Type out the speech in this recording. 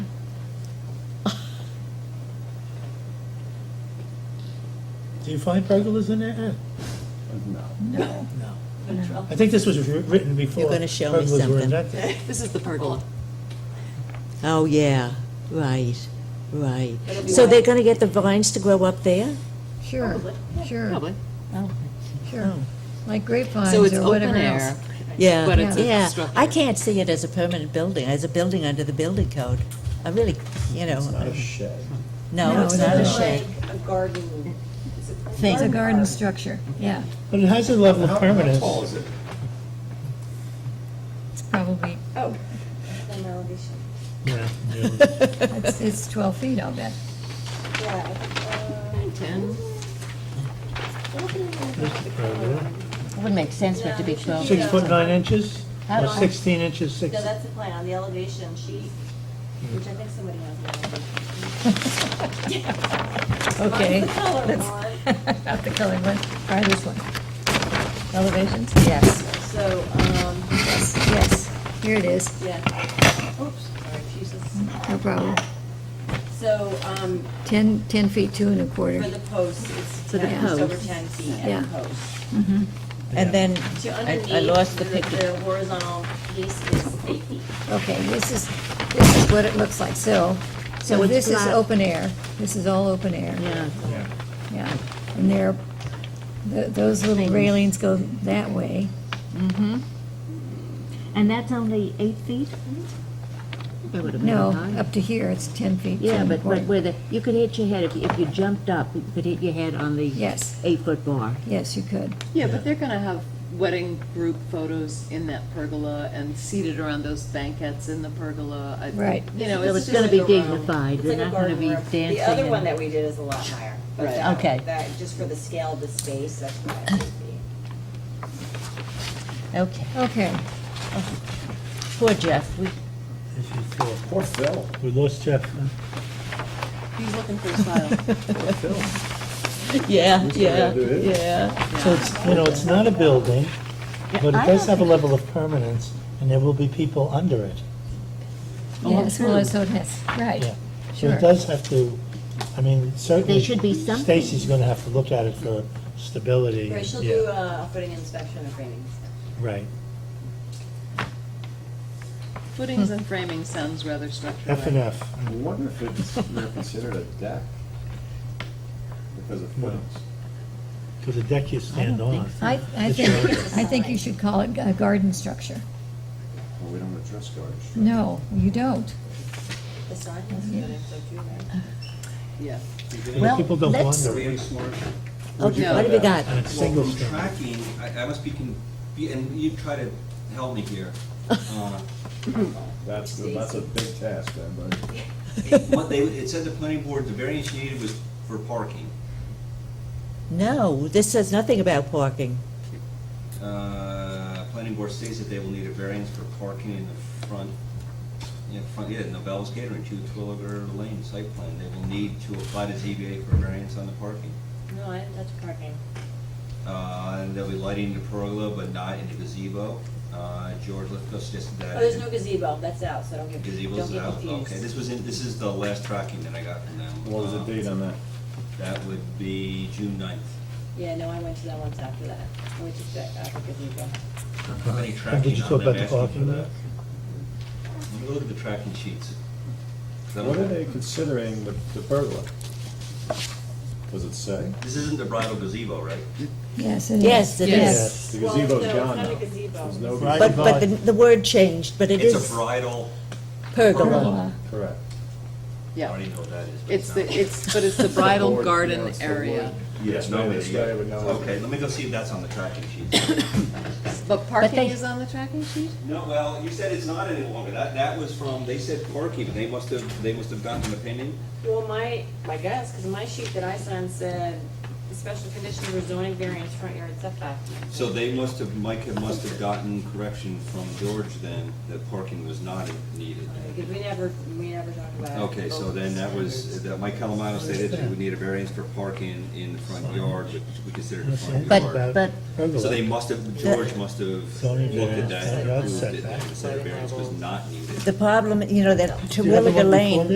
Do you find pergolas in there, Ann? No. No. No. I think this was wri- written before gonna show me pergolas were something. invented. This is the pergola. Oh, yeah, right, right. It'll be So like- they're gonna get the vines to grow up there? Sure, Probably. sure, Probably. sure. Like grapevines So it's or open whatever air. else. Yeah, But it's a yeah. I structure. can't see it as a permanent building, as a building under the building code. I really, you know, um, It's not a shed. no, it's not a it's shed. Like a garden. it's a Thing. It's a garden structure, yeah. But it has a level of How- permanence. How tall is it? It's probably, Oh, an elevation. Yeah, yeah. it's, it's 12 feet, I'll bet. Yeah. I think, Ten. uh, looking at This is a pergola. It would make sense for it to be 12 Six foot nine inches, or How- sixteen inches, six. No, that's the plan, on the elevation sheet, which I think somebody has. an elevation. Okay. Mine's the color That's- one, Not the colored one, try this one. Elevations? Yes, so, um, Yes, yes, here it is, yeah. Oops, sorry, Jesus. no problem. So, um, 10, 10 feet, two and a for quarter. the posts, it's For the ten- just over posts. ten feet Yeah. and posts. And then, So I I underneath, lost the the picture. the horizontal piece is eight feet. Okay, this is, this is what it looks like, so, so it's this is flat. open air, this is all open air. Yeah, Yeah, and there, th- those little railings go that way. and that's only eight feet? That would have been No, high. up to here, it's 10 feet. two Yeah, and but, a but quarter. where the, you could hit your head, if you- if you jumped up, Uh, you could hit your head on the Yes, eight-foot bar. yes, you could. Yeah, but they're gonna have wedding group photos in that pergola and seated around those banquettes in the pergola. I- Right. You So know, it's it's just gonna be like a room. dignified, It's they're like a not gonna garden be room. dancing. The other one and- that we did is a lot higher. but Right. that- Okay. That, just for the scale of the space, that's what I would be. okay. Okay, Poor Jeff, we, This is cool. Poor Phil. We lost Jeff. huh? He's looking for a file. Poor Phil. yeah, Which way yeah, do it? yeah. So it's, you know, it's not a building, but it I does don't have a think- level of permanence, and there will be people under it. yes, well, that's what it has, right, Yeah. So sure. it does have to, I mean, certainly. There should be something. Stacy's gonna have to look at it for stability. Right, she'll Yeah. do uh, a footing inspection and framing inspection. Right. Footings and framing sounds rather structural. F and F. I wonder if it's they're considered a deck because of No. footings. Because the deck you stand on. I, I It's think, your- I think you should call it a garden structure. Well, we don't address garbage. No, you don't. The sign has to go in, so too, right? Yeah. And Well, People don't let's- wander. Really smart. Okay, what have you got? And it's Well, single from story. tracking, I, I must be, con- be- and you try to help me here. Uh, That's, that's a big task, then, buddy. What they, it said the planning board, the variance you needed was for parking. No, this says nothing about parking. Uh, Planning board states that they will need a variance for parking in the front, in front, yeah, Novell's Catering, two Twilliger Lane site plan. They will need to apply to ZBA for variance on the parking. No, I didn't touch parking. Uh, And they'll be lighting the pergola, but not in the gazebo. Uh, George Lithgow suggested that. Oh, there's no gazebo, that's out, so don't get, don't Gazebo's get out, uh, okay, confused. this was in, this is the last tracking that I got from them. What was the Uh, date on that? That would be June ninth. Yeah, no, I went to that once after that. I went to check out the gazebo. Uh-huh. How many And did tracking you talk on about them the asking for parking lot? that? Let me look at the tracking sheets. That What are was- they considering the the pergola? Does it say? This isn't the bridal gazebo, right? Yes, it is. Yes, it Yes. is. The Well, gazebo's no, it's gone not a now. gazebo. There's no Right. But, but the, the word changed, but it It's is a bridal, pergola. Pergola. Correct. I Yeah. don't even know what that is. but It's the, not- it's, but it's the bridal Board, no, garden it's the area. board. Yes, Yes, no, maybe but this yeah. guy would know. Okay, let me go see if that's on the tracking sheet. But parking they- is on the tracking sheet? No, well, you said it's not any longer, that, that was from, they said parking, they must have, they must have gotten an opinion. Well, my, my guess, because my sheet that I signed said, the special conditions were zoning variance, front yard setback. So they must have, Mike had- must have gotten correction from George then, that parking was not needed. Because we never, we never talked about. Okay, so then that was, that Mike Calamano stated that we need a variance for parking in the front yard, which we considered the front But- yard. But So they Pergola. must have, George must have Zoning looked variance, at that, front yard and approved it, setback. and said a variance was not needed. The problem, you know, that you have the Terwilliger one before Lane, me?